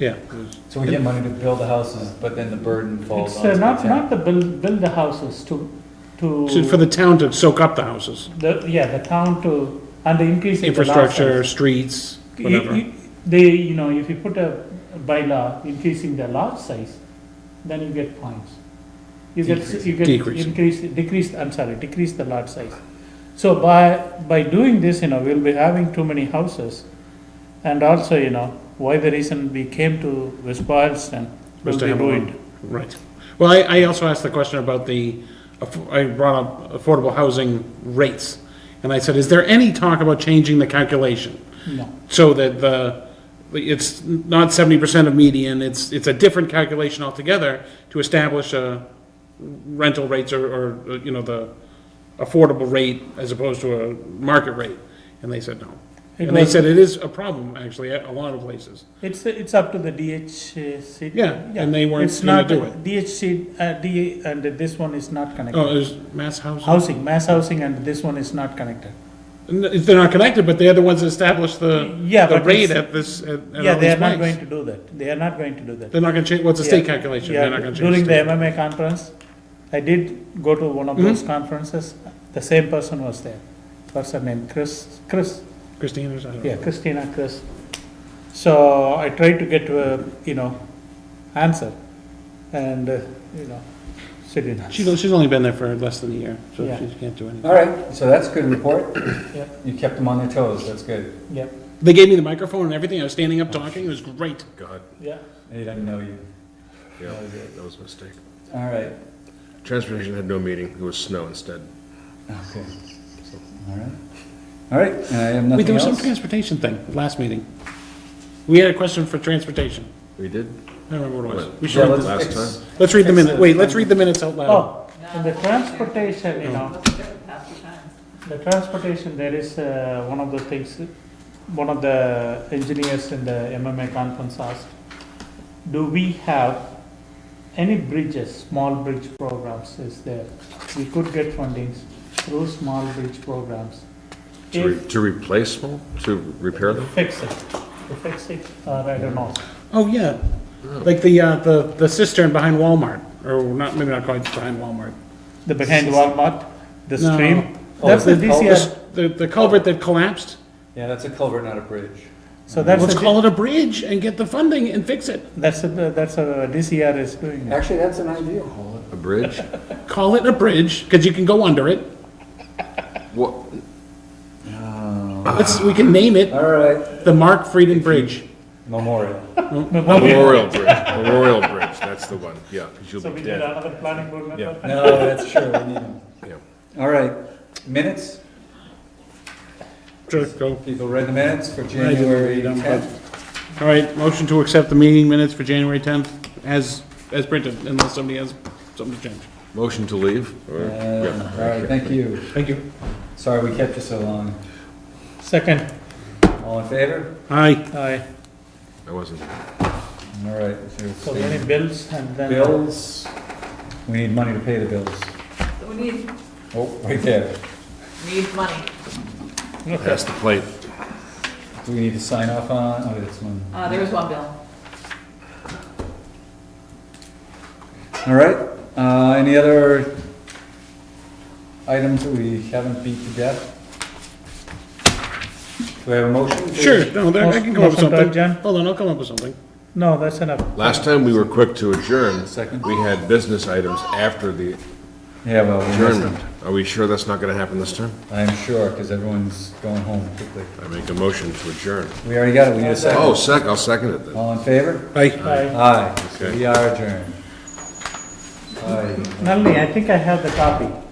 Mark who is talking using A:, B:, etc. A: Yeah, it was-
B: So we get money to build the houses, but then the burden falls
C: It's
B: on the
C: uh, not, not
B: town.
C: the build, build the houses to, to.
A: so for the town to soak up the houses,
C: the- yeah, the town to, and the increase in the lot
A: infrastructure,
C: size.
A: streets,
C: You-
A: whatever.
C: you- They, you know, if you put a bylaw increasing the lot size, then you get points. You get,
B: Decrease.
C: you get
A: Decrease.
C: increase, decrease, I'm sorry, decrease the lot size. So by, by doing this, you know, we'll be having too many houses. And also, you know, why the reason we came to West Boylston will
A: Was to
C: be
A: have a lot.
C: ruined.
A: Right. Well, I, I also asked the question about the, aff- I brought up affordable housing rates. And I said, is there any talk about changing the calculation?
C: No,
A: So that the, it's not seventy percent of median, it's, it's a different calculation altogether to establish a rental rates or, or, you know, the affordable rate as opposed to a market rate. And they said no.
C: It
A: And they
C: was-
A: said it is a problem, actually, at a lot of places.
C: it's, it's up to the DHC.
A: Yeah, and they weren't
C: It's
A: gonna
C: not-
A: do it.
C: DHC, uh, D, and this one is not connected.
A: Oh, it was mass housing?
C: Housing, mass housing, and this one is not connected.
A: N- if They're not connected, but they're the ones that established the,
C: Yeah,
A: the
C: but
A: rate
C: it's-
A: at this, at at all these
C: Yeah, they are not going
A: banks.
C: to do that. They are not going to do that.
A: They're not gonna change, what's the state calculation?
C: Yeah,
A: They're not gonna change.
C: During the
A: state. Mm-hmm.
C: MMA conference, I did go to one of those conferences. The same person was there. Person named Chris, Chris,
A: Christine or something?
C: yeah, Christina Chris. So I tried to get, uh, you know, answer and, uh, you know, she didn't.
A: She's, she's only been there for less than a year, so
C: Yeah.
A: she can't do anything.
B: All right, so that's a good report.
C: Yep.
B: You kept them on their toes, that's good.
C: Yeah,
A: They gave me the microphone and everything, I was standing up talking, it was great.
D: God,
C: yeah.
B: They didn't know you.
D: yeah, that was a mistake.
B: All right,
D: Transportation had no meeting, it was snow instead.
B: okay. All right. All right, and I have
A: Wait, there
B: nothing
A: was some
B: else.
A: transportation thing, last meeting. We had a question for transportation,
D: We did?
A: I don't remember what it was. We
B: Yeah,
A: should read
B: let's
A: the-
D: Last
B: fix-
D: time.
A: Let's read the
B: fix
A: minute,
B: the-
A: wait, let's read the minutes out loud.
C: Oh, and the transportation, you know, The transportation, there is uh, one of the things, one of the engineers in the MMA conference asked, do we have any bridges, small bridge programs is there? We could get fundings through small bridge programs.
D: To
C: If
D: re- to replace them, to repair them?
C: fix it, to fix it, or I don't know.
A: Oh, yeah, like the, uh, the, the cistern behind Walmart, or not, maybe not quite behind Walmart.
C: The behind Walmart, the
A: No.
C: stream,
B: Oh,
C: that's the
B: is it called-
C: DCR,
A: The, the culvert that collapsed,
B: Yeah, that's a culvert, not a bridge.
C: so that's,
A: let's
C: the-
A: call it a bridge and get the funding and fix it.
C: that's, the- that's a DCR is doing it.
B: Actually, that's an idea.
D: A bridge?
A: Call it a bridge, because you can go under it.
D: What,
A: Let's, we can name it
B: All right,
A: the Mark Frieden Bridge.
B: memorial.
D: Memorial Bridge, Memorial Bridge, that's the one, yeah, because
C: So
D: you'll
C: we
D: be
C: did
D: dead.
C: another planning board member.
D: Yeah.
B: No, that's true, we need them.
D: Yeah.
B: All right, minutes?
A: Sure, go.
B: People read the minutes for
A: didn't
B: January
A: read them, but-
B: 10th?
A: All right, motion to accept the meeting minutes for January 10th as, as printed, unless somebody has something to change.
D: Motion to leave? Or-
B: Uh,
D: yeah,
B: All right, thank you.
A: Thank you.
B: Sorry we kept you so long.
C: Second,
B: All in favor?
A: Aye.
C: aye.
D: I wasn't.
B: All right. so it's-
C: So many bills and then.
B: Bills, we need money to pay the bills.
E: We need,
B: Oh, right there.
E: need money.
D: Pass the plate.
B: Do we need to sign off on, oh, that's one.
E: Uh, there was one bill.
B: All right, uh, any other items that we haven't beat to death? Do we have a motion? to-
A: Sure, no, there- I can come up with
C: Motion to
A: something.
C: adjourn.
A: Hold on, I'll come up with something.
C: No, that's enough.
D: Last time we were quick to adjourn,
B: Second.
D: we had business items after the
B: Yeah, well, we missed
D: adjournment.
B: them.
D: Are we sure that's not gonna happen this time?
B: I'm sure, because everyone's going home quickly.
D: I make a motion to adjourn.
B: We already got it, we need a
D: Oh,
B: second.
D: sec, I'll second it then.
B: All in favor?
A: Aye.
C: Aye.
B: Aye,
D: Oh. Okay.
B: we are adjourned. Aye.
C: Nalini, I think I have the copy.